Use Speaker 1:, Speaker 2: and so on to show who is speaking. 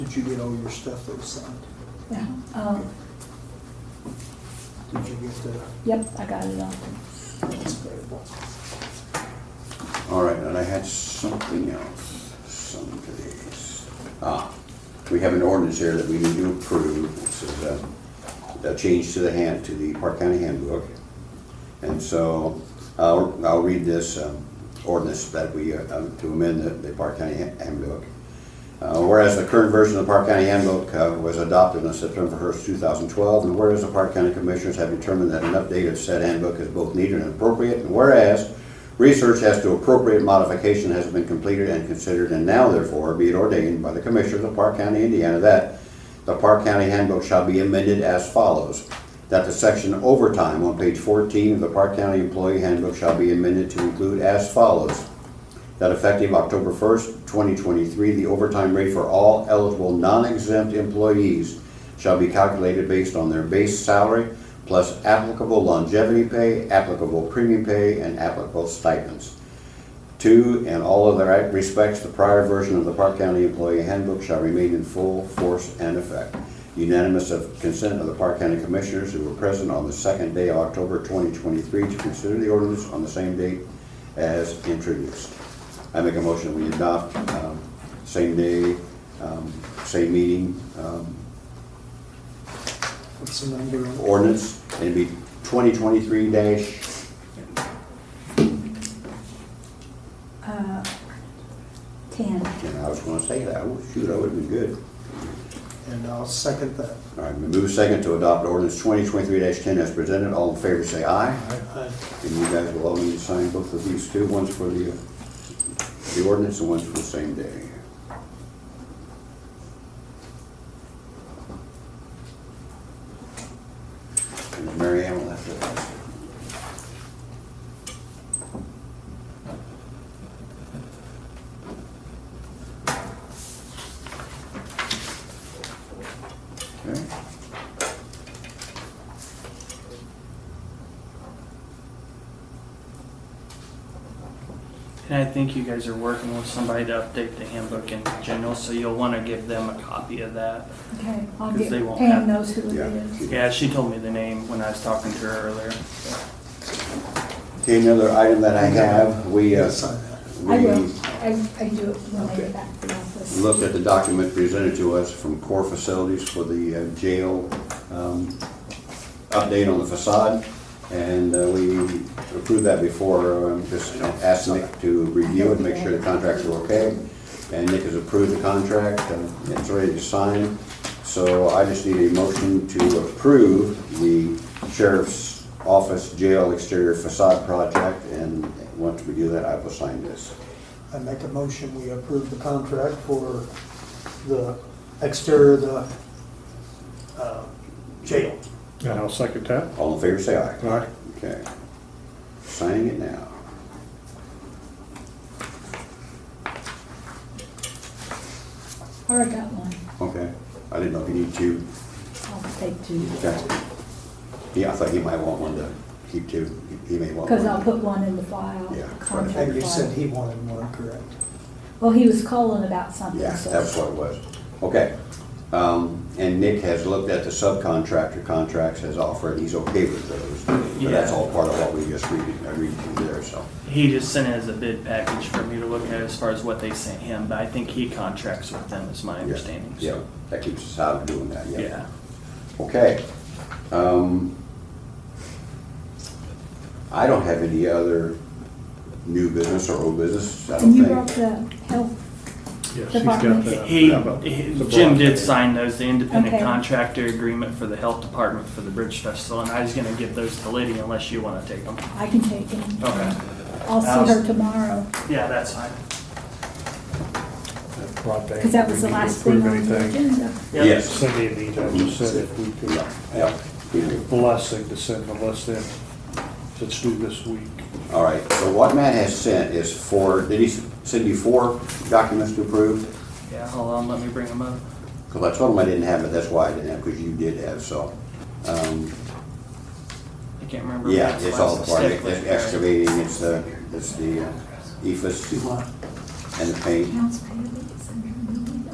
Speaker 1: Did you get all your stuff that was signed?
Speaker 2: Yeah, um,
Speaker 1: Did you get the,
Speaker 2: yep, I got it all.
Speaker 1: that's available?
Speaker 3: All right, and I had something else, some of these. Ah, we have an ordinance here that we need to approve. This is a, a change to the hand, to the Park County handbook. And so, I'll, I'll read this um, ordinance that we, uh, um, to amend the, the Park County Han- handbook. Uh, Whereas the current version of the Park County handbook uh, was adopted on September 1st, 2012, and whereas the Park County Commissioners have determined that an update of said handbook is both needed and appropriate, and whereas research as to appropriate modification has been completed and considered, and now therefore be it ordained by the Commissioners of Park County, Indiana, that the Park County handbook shall be amended as follows. That the section overtime on page 14 of the Park County Employee Handbook shall be amended to include as follows that effective October 1st, 2023, the overtime rate for all eligible non-exempt employees shall be calculated based on their base salary plus applicable longevity pay, applicable premium pay, and applicable stipends. Two, in all other respects, the prior version of the Park County Employee Handbook shall remain in full force and effect. Unanimous of consent of the Park County Commissioners who were present on the second day of October 2023 to consider the ordinance on the same date as introduced. I make a motion we adopt, um, same day, um, same meeting, um,
Speaker 1: What's the number on it?
Speaker 3: ordinance, and it'd be 2023 dash,
Speaker 2: Uh, Ten.
Speaker 3: and I was gonna say that, Oh, shoot, that would've been good.
Speaker 1: And I'll second that.
Speaker 3: All right, we move second to adopt ordinance twenty twenty-three ten as presented. All in favor, say aye.
Speaker 1: Aye.
Speaker 3: And you guys will all need to sign both of these two, one's for the, uh, the ordinance and one's for the same day. And Mary Ann will have to. Okay.
Speaker 4: And I think you guys are working with somebody to update the handbook in general, so you'll want to give them a copy of that.
Speaker 2: Okay, I'll
Speaker 4: 'Cause
Speaker 2: get,
Speaker 4: they won't
Speaker 2: Pam
Speaker 4: have-
Speaker 2: knows who it
Speaker 3: Yeah.
Speaker 2: is.
Speaker 4: Yeah, she told me the name when I was talking to her earlier.
Speaker 3: Okay, another item that I have, we, uh,
Speaker 1: You'll sign that.
Speaker 2: I will,
Speaker 3: we
Speaker 2: I, I can do it when I
Speaker 3: Okay.
Speaker 2: get back to the office.
Speaker 3: looked at the document presented to us from Core Facilities for the uh, jail um, update on the facade, and uh, we approved that before, um, just asked Nick to review it, make sure the contracts were okay, and Nick has approved the contract, uh, and it's ready to sign, so I just need a motion to approve the sheriff's office jail exterior facade project, and once we do that, I will sign this.
Speaker 1: I make a motion, we approve the contract for the exterior of the uh, jail.
Speaker 5: And I'll second that.
Speaker 3: All in favor, say aye.
Speaker 5: All right.
Speaker 3: Okay. Signing it now.
Speaker 2: I already got one.
Speaker 3: Okay. I didn't know if you need two.
Speaker 2: I'll take two.
Speaker 3: Okay. Yeah, I thought he might want one to keep two. He may want one.
Speaker 2: Cause I'll put one in the file.
Speaker 3: Yeah,
Speaker 2: the
Speaker 3: right.
Speaker 1: And
Speaker 2: contract
Speaker 1: you said
Speaker 2: file.
Speaker 1: he wanted one, correct?
Speaker 2: Well, he was calling about something,
Speaker 3: Yeah,
Speaker 2: so.
Speaker 3: that's what it was. Okay. Um, and Nick has looked at the subcontractor contracts as offered. He's okay with those. But that's
Speaker 4: Yeah.
Speaker 3: all part of what we just read, I read through there, so.
Speaker 4: He just sent it as a bid package for me to look at as far as what they sent him, but I think he contracts with them, is my understanding.
Speaker 3: Yeah,
Speaker 4: so-
Speaker 3: that keeps us out of doing that, yeah.
Speaker 4: Yeah.
Speaker 3: Okay. Um, I don't have any other new business or old business, I don't
Speaker 2: And you brought
Speaker 3: think.
Speaker 2: the health,
Speaker 5: Yes, he's
Speaker 2: Department.
Speaker 5: got that.
Speaker 4: He,
Speaker 5: Yeah, but
Speaker 4: he-
Speaker 5: the
Speaker 4: Jim
Speaker 5: broad-
Speaker 4: did sign those, the independent
Speaker 2: Okay.
Speaker 4: contractor agreement for the health department for the Bridge Festival, and I was gonna give those to Liddy unless you want to take them.
Speaker 2: I can take him.
Speaker 4: Okay.
Speaker 2: I'll see her tomorrow.
Speaker 4: Yeah, that's fine.
Speaker 5: that broad thing.
Speaker 2: Cause that was
Speaker 5: We
Speaker 2: the
Speaker 5: need to
Speaker 2: last thing
Speaker 5: approve
Speaker 2: on the
Speaker 5: anything.
Speaker 2: agenda.
Speaker 4: Yep.
Speaker 3: Yes.
Speaker 5: Cindy and me to just said if we could,
Speaker 3: Yeah, yeah, we do.
Speaker 5: blessing to send the list in, let's do this week.
Speaker 3: All right, so what Matt has sent is four, did he s- send you four documents to approve?
Speaker 4: Yeah, hold on, let me bring them up.
Speaker 3: Because I told him I didn't have it, that's why I didn't have, because you did have, so. um,
Speaker 4: I can't remember.
Speaker 3: Yeah,
Speaker 4: what's
Speaker 3: it's
Speaker 4: last
Speaker 3: all the part,
Speaker 4: stick
Speaker 3: it's
Speaker 4: list.
Speaker 3: E excavating, it's the, it's the uh, EFS and the paint.
Speaker 2: Accounts payable.